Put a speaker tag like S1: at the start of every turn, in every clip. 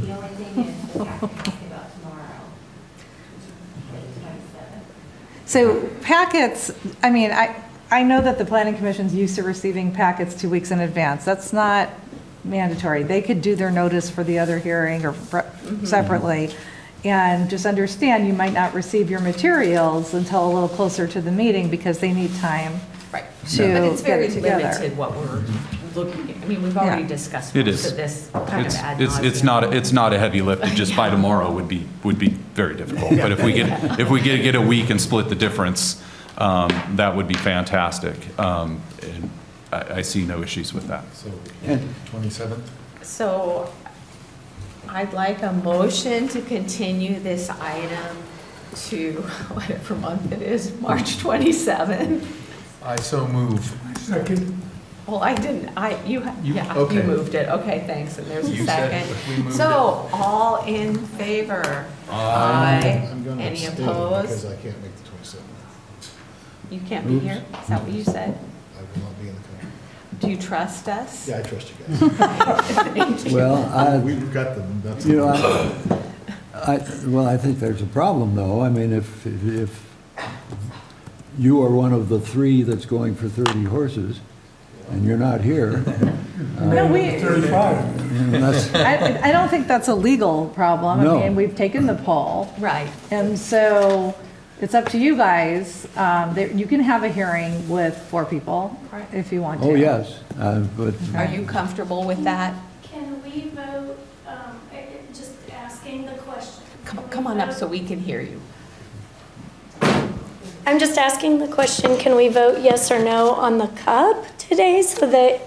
S1: The only thing is, the packet is about tomorrow, which is the 27th.
S2: So packets, I mean, I, I know that the planning commission's used to receiving packets two weeks in advance. That's not mandatory. They could do their notice for the other hearing or fr-
S3: Mm-hmm.
S2: separately. And just understand, you might not receive your materials until a little closer to the meeting because they need time.
S3: Right.
S2: to
S3: But it's
S2: get
S3: very
S2: it together.
S3: limited what we're looking, at. I mean, we've already
S2: Yeah.
S3: discussed
S4: It
S3: most
S4: is.
S3: of this kind of
S4: It's,
S3: ad
S4: it's, it's
S3: nauseam.
S4: not, it's not a heavy lift, just by tomorrow would be, would be very difficult. But if we get, if we get, get a week and split the difference, um, that would be fantastic. Um, and I, I see no issues with that.
S5: So, 27th?
S6: So I'd like a motion to continue this item to whatever month it is, March 27.
S5: I so move. Second.
S6: Well, I didn't, I, you, ha-
S5: You-
S6: yeah,
S5: okay.
S6: you moved it. Okay, thanks, and there's a
S5: You said it,
S6: second.
S5: but we moved it.
S6: So all in favor?
S5: Aye.
S6: Aye.
S7: I'm going to
S6: Any
S7: abstain
S6: opposed?
S7: because I can't make the 27th.
S6: You can't be here? Is that what you said?
S7: I will not be in the country.
S6: Do you trust us?
S7: Yeah, I trust you
S8: Well,
S7: guys.
S8: I,
S7: We've got them, that's.
S8: Uh, you know, I, I- well, I think there's a problem, though. I mean, if, if you are one of the three that's going for 30 horses, and you're not here,
S2: No, we,
S8: unless,
S2: I, I don't think that's a legal problem.
S8: No.
S2: I mean, we've taken the poll.
S6: Right.
S2: And so it's up to you guys. Um, there- You can have a hearing with four people
S6: Right.
S2: if you want to.
S8: oh, yes, uh, but,
S6: Are you comfortable with that?
S9: Can we vote, um, I- I- just asking the question?
S6: Come,
S9: Can we
S6: come on up
S9: vote?
S6: so we can hear you.
S9: I'm just asking the question, can we vote yes or no on the cup today so that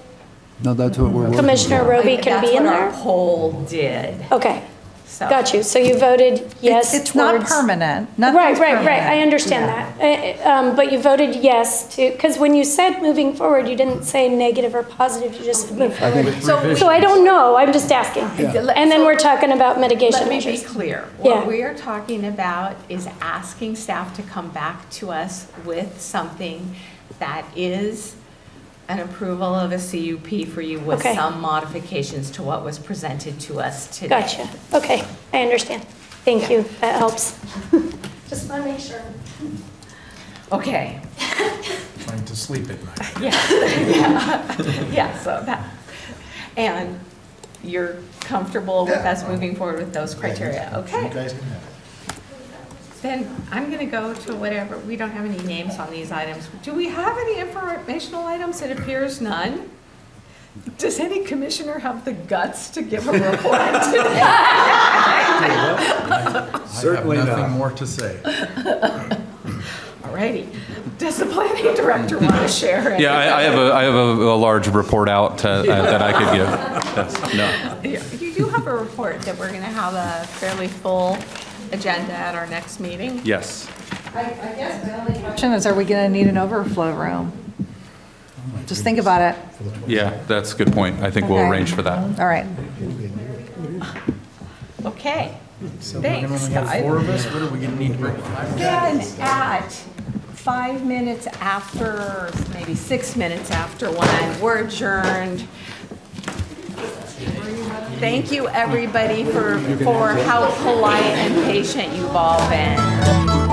S8: no, that's what we're working on.
S9: Commissioner Roby can be
S6: That's what
S9: in there?
S6: our poll did,
S9: Okay,
S6: so.
S9: got you. So you voted yes
S2: It's- It's not
S9: towards-
S2: permanent.
S9: Right,
S2: Nothing's
S9: right, right, I
S2: permanent.
S9: understand that. Uh, uh, um, But you voted yes to, because when you said moving forward, you didn't say negative or positive, you just said move forward.
S6: So
S9: So I don't know, I'm just asking.
S6: Yeah.
S9: And then we're talking about mitigation
S6: Let me be
S9: measures.
S6: clear.
S9: Yeah.
S6: What we are talking about is asking staff to come back to us with something that is an approval of a CUP for you with
S9: Okay.
S6: some modifications to what was presented to us today.
S9: Gotcha, okay, I understand. Thank you, that helps. Just want to make sure.
S6: Okay,
S5: Trying to sleep at night.
S6: yeah, so that, and you're comfortable with us moving forward with those criteria,
S7: You
S6: okay?
S7: guys can have it.
S6: Then I'm going to go to whatever, we don't have any names on these items. Do we have any informational items? It appears none. Does any commissioner have the guts to give a report today?
S5: I have
S8: Certainly not.
S5: nothing more to say.
S6: All righty. Does the planning director want to share it?
S4: Yeah, I, I have a, I have a, a large report out uh, that I could give. That's- No.
S6: Yeah, You do have a report that we're going to have a fairly full agenda at our next meeting.
S4: Yes.
S2: Question is, are we going to need an overflow room? Just think about it.
S4: Yeah, that's a good point. I think we'll
S2: Okay.
S4: arrange for that.
S2: All right.
S6: Okay.
S5: So we're gonna
S6: Thanks,
S5: only have
S6: guys.
S5: four of us, what are we gonna need to bring? five
S6: Then
S5: jackets?
S6: at five minutes after, maybe six minutes after one, we're adjourned. Thank you, everybody, for, for how polite and patient you've all been.